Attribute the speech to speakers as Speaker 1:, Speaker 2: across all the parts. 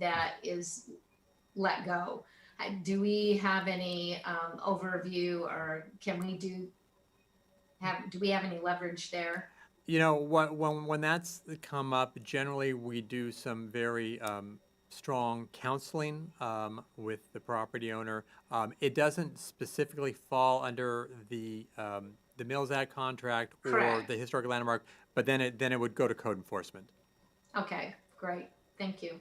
Speaker 1: that is let go. Uh, Do we have any um, overview or can we do, have, do we have any leverage there?
Speaker 2: You know, when, when, when that's come up, generally we do some very um, strong counseling um, with the property owner. Um, it doesn't specifically fall under the um, the Mills Act contract or
Speaker 1: Correct.
Speaker 2: the historic landmark, but then it then it would go to code enforcement.
Speaker 1: Okay, great. Thank you.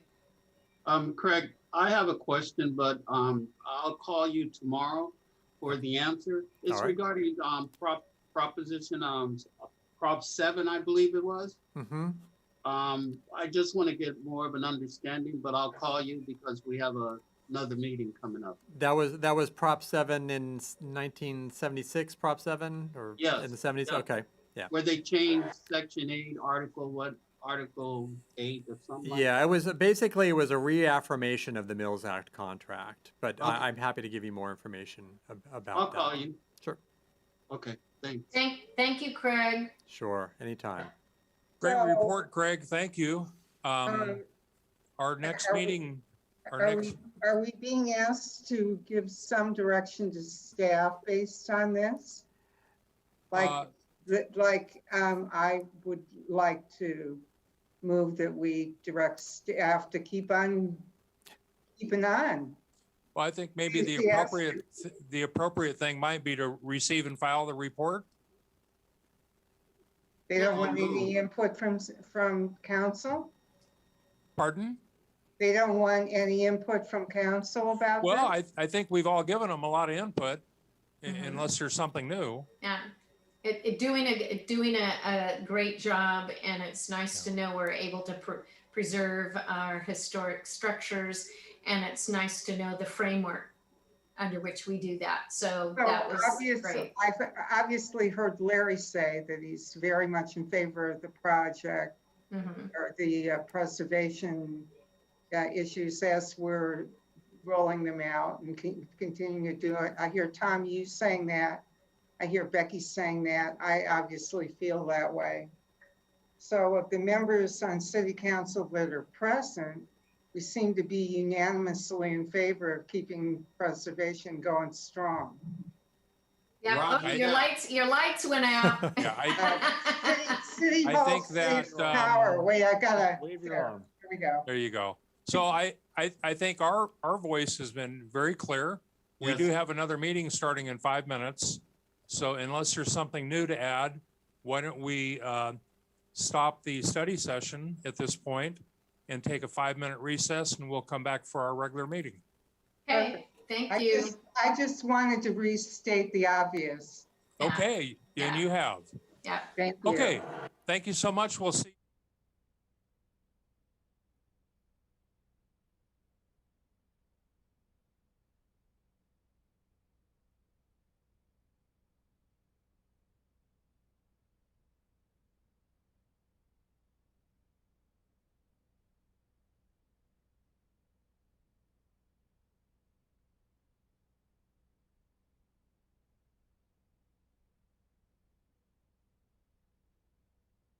Speaker 3: Um, Craig, I have a question, but, um, I'll call you tomorrow for the answer. It's
Speaker 2: All right.
Speaker 3: regarding, um, prop, proposition, um, prop seven, I believe it was.
Speaker 2: hmm
Speaker 3: Um, I just want to get more of an understanding, but I'll call you because we have a, another meeting coming up.
Speaker 2: That was that was Prop Seven in s- 1976. Prop Seven or in
Speaker 3: Yes,
Speaker 2: the 70s.
Speaker 3: yeah.
Speaker 2: Okay.
Speaker 3: Where they changed section eight, article what, article eight or something like?
Speaker 2: Yeah, it was basically it was a reaffirmation of the Mills Act contract, but
Speaker 3: Okay.
Speaker 2: I, I'm happy to give you more information ab- about
Speaker 3: I'll
Speaker 2: that.
Speaker 3: call you.
Speaker 2: Sure.
Speaker 3: Okay, thanks.
Speaker 1: Thank, thank you, Craig.
Speaker 2: Sure, anytime.
Speaker 4: Great
Speaker 5: So-
Speaker 4: report, Greg. Thank you. Um,
Speaker 5: Um,
Speaker 4: our next
Speaker 5: are we-
Speaker 4: meeting, our
Speaker 5: Are
Speaker 4: next,
Speaker 5: we, are we being asked to give some direction to staff based on this?
Speaker 4: Uh,
Speaker 5: Like, that- like, um, I would like to move that we direct staff to keep on, keeping on.
Speaker 4: well, I think maybe the
Speaker 5: Yes.
Speaker 4: appropriate, the appropriate thing might be to receive and file the report.
Speaker 5: They don't
Speaker 3: Yeah,
Speaker 5: want any
Speaker 3: move.
Speaker 5: input from, s- from council?
Speaker 4: Pardon?
Speaker 5: They don't want any input from council about
Speaker 4: Well,
Speaker 5: this?
Speaker 4: I, I think we've all given them a lot of input, i-
Speaker 5: Mm-hmm.
Speaker 1: Mhm.
Speaker 4: unless there's something new.
Speaker 1: Yeah. It, it doing a, doing a, a great job and it's nice to know we're able to pr- preserve our historic structures. And it's nice to know the framework under which we do that. So
Speaker 5: So
Speaker 1: that was great.
Speaker 5: obviously, I've obviously heard Larry say that he's very much in favor of the project.
Speaker 1: Mhm.
Speaker 5: or the uh, preservation uh, issues as we're rolling them out and con- continuing to do it. I hear Tom, you saying that. I hear Becky saying that. I obviously feel that way. So of the members on city council that are present, we seem to be unanimously in favor of keeping preservation going strong.
Speaker 1: Yeah,
Speaker 3: Rob,
Speaker 1: oh,
Speaker 4: I-
Speaker 1: your lights, your lights went out.
Speaker 4: Yeah,
Speaker 5: City- City
Speaker 4: I
Speaker 5: Hall,
Speaker 4: think that,
Speaker 5: City Tower,
Speaker 4: um,
Speaker 5: wait, I gotta,
Speaker 2: Leave
Speaker 5: it alone. here we go.
Speaker 4: There you go. So I, I, I think our, our voice has been very clear. We
Speaker 2: Yes.
Speaker 4: do have another meeting starting in five minutes. So unless there's something new to add, why don't we uh, stop the study session at this point and take a five-minute recess and we'll come back for our regular meeting.
Speaker 1: Okay, thank
Speaker 5: I
Speaker 1: you.
Speaker 5: just, I just wanted to restate the obvious.
Speaker 1: Yeah.
Speaker 4: Okay, and you have.
Speaker 1: Yeah.
Speaker 5: Thank you.
Speaker 4: Okay, thank you so much. We'll see.